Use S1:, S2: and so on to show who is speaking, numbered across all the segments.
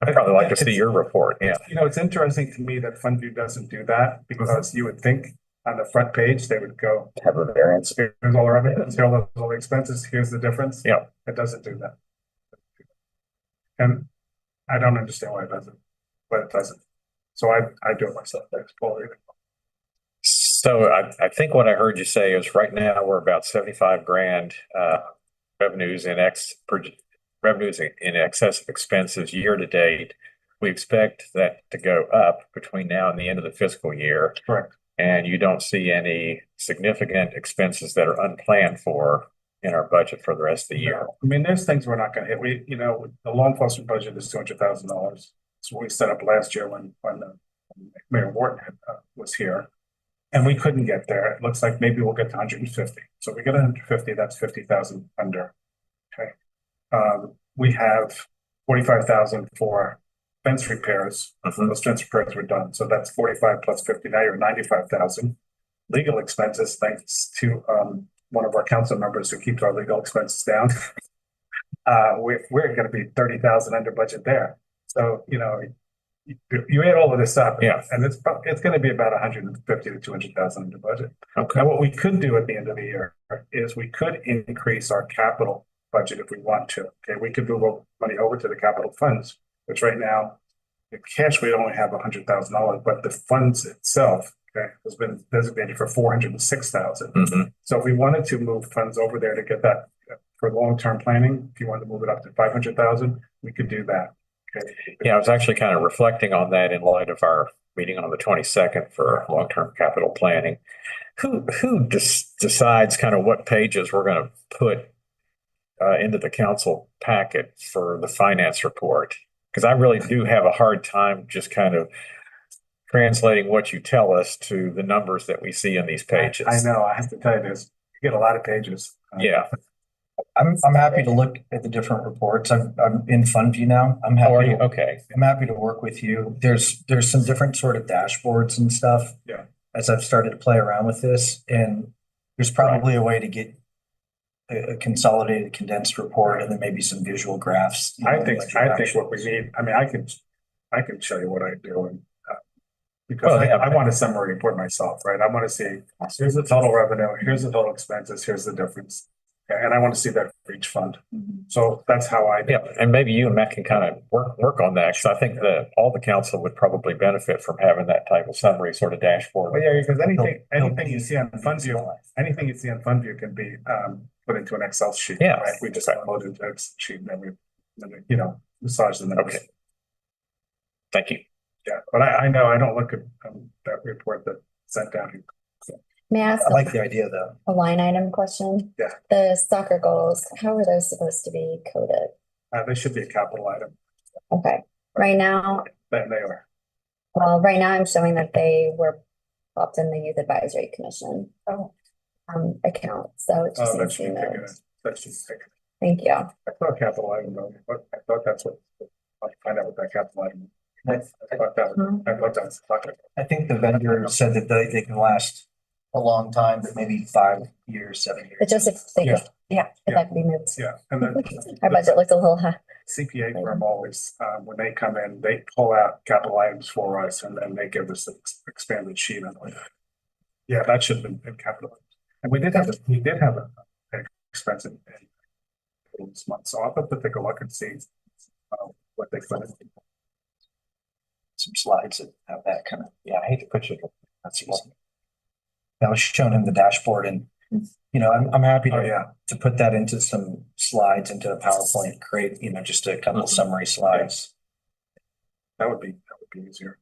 S1: I'd probably like to see your report, yeah.
S2: You know, it's interesting to me that FundView doesn't do that because you would think on the front page, they would go,
S1: Have a variance.
S2: here's all the revenues, here are all the expenses, here's the difference.
S1: Yeah.
S2: It doesn't do that. And I don't understand why it doesn't, but it doesn't. So I, I do it myself. I explore it.
S1: So I, I think what I heard you say is right now we're about seventy-five grand, uh, revenues in ex, per- revenues in- in excess of expenses year to date. We expect that to go up between now and the end of the fiscal year.
S2: Correct.
S1: And you don't see any significant expenses that are unplanned for in our budget for the rest of the year.
S2: I mean, there's things we're not gonna hit. We, you know, the law enforcement budget is two hundred thousand dollars. So we set up last year when, when uh, Mayor Wharton had, uh, was here. And we couldn't get there. It looks like maybe we'll get to hundred and fifty. So if we get hundred and fifty, that's fifty thousand under. Okay. Um, we have forty-five thousand for fence repairs. Those fence repairs were done. So that's forty-five plus fifty. Now you're ninety-five thousand. Legal expenses, thanks to, um, one of our council members who keeps our legal expenses down. Uh, we're, we're gonna be thirty thousand under budget there. So, you know, you, you add all of this up.
S1: Yeah.
S2: And it's, prob- it's gonna be about hundred and fifty to two hundred thousand under budget.
S1: Okay.
S2: Now, what we could do at the end of the year is we could increase our capital budget if we want to. Okay, we could move o- money over to the capital funds, which right now, the cash, we only have hundred thousand dollars, but the funds itself, okay, has been designated for four hundred and six thousand.
S1: Mhm.
S2: So if we wanted to move funds over there to get that uh, for long-term planning, if you wanted to move it up to five hundred thousand, we could do that. Okay,
S1: Yeah, I was actually kind of reflecting on that in light of our meeting on the twenty-second for long-term capital planning. Who, who des- decides kind of what pages we're going to put uh, into the council packet for the finance report? Because I really do have a hard time just kind of translating what you tell us to the numbers that we see in these pages.
S2: I know, I have to tell you this, you get a lot of pages. Uh,
S1: Yeah,
S3: I'm, I'm happy to look at the different reports. I'm, I'm in FundView now. I'm
S1: how are
S3: happy,
S1: you?
S3: to-
S1: Okay.
S3: I'm happy to work with you. There's, there's some different sort of dashboards and stuff.
S2: Yeah.
S3: As I've started to play around with this and there's probably a way to get a, a consolidated condensed report and then maybe some visual graphs. you
S2: I
S3: know,
S2: think,
S3: like
S2: I think what we
S3: actuals.
S2: need, I mean, I can, I can show you what I do and. uh, Because
S1: Well,
S2: I,
S1: yeah.
S2: I want a summary report myself, right? I want to see, here's the total revenue, here's the total expenses, here's the difference. And I want to see that for each fund. So that's how I. do
S1: Mm-hmm. Yeah,
S2: it.
S1: and maybe you and Matt can kind of work, work on that, because I think that all the council would probably benefit from having that type of summary sort of
S2: Well,
S1: dashboard.
S2: yeah, because anything,
S3: Help-
S2: anything you see on FundView, anything you see on FundView can be, um, put into an Excel sheet.
S1: Yeah.
S2: Right? We just upload it into Excel sheet and then we, then we, you know, massage the numbers.
S1: Okay. Thank you.
S2: Yeah, but I, I know, I don't look at, um, that report that sent down.
S4: May I ask
S3: I like the idea though.
S4: a line item question?
S2: Yeah.
S4: The soccer goals, how are those supposed to be coded?
S2: Uh, they should be a capital item,
S4: Okay, right now,
S2: then they are.
S4: well, right now I'm showing that they were popped in the youth advisory commission.
S2: Oh.
S4: Um, account, so it just
S2: Uh, that
S4: needs to
S2: should
S4: be
S2: be taken,
S4: moved.
S2: as- that should be taken.
S4: Thank you.
S2: I thought capital item, though, but I thought that's what, I'll find out what that capital item.
S3: I,
S2: I thought that,
S4: Mhm.
S2: I thought that's.
S3: I think the vendor said that they, they can last a long time, but maybe five years, seven years.
S4: But just if they,
S2: Yeah.
S4: could- yeah,
S2: Yeah.
S4: if that could be moved.
S2: Yeah, and then
S4: Our budget looked a little high.
S2: CPA firm always, um, when they come in, they pull out capital items for us and then they give us an ex- expanded sheet on it. Yeah, that should have been in capital. And we did have, a- we did have a an expense in in this month, so I'll have to take a look and see uh, what they put in.
S3: some slides that have that kind of, yeah, I hate to put you. That's easy.
S1: Well-
S3: I was showing him the dashboard and, you know, I'm, I'm happy
S2: Oh,
S3: to,
S2: yeah,
S3: to put that into some slides, into a PowerPoint, create, you know, just a couple
S1: Mhm.
S3: summary slides.
S2: that would be, that would be easier.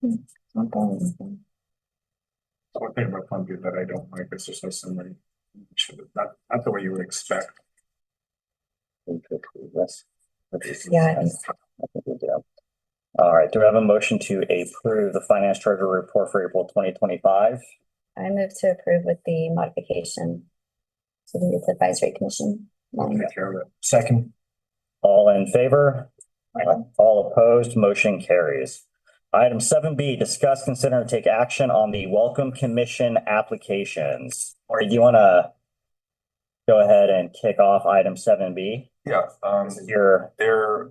S2: One thing about Columbia that I don't like is there's no summary, should have- not, not the way you would expect.
S4: Yeah, I think
S5: I think we do. All right, do we have a motion to approve the finance treasurer report for April twenty twenty-five?
S4: I move to approve with the modification to the youth advisory commission. line.
S2: Take care of it.
S3: Second,
S5: All in favor? All opposed, motion carries. Item seven B, discuss, consider, and take action on the Welcome Commission applications. Or do you want to go ahead and kick off item seven B?
S6: Yeah, um,
S5: Your
S6: there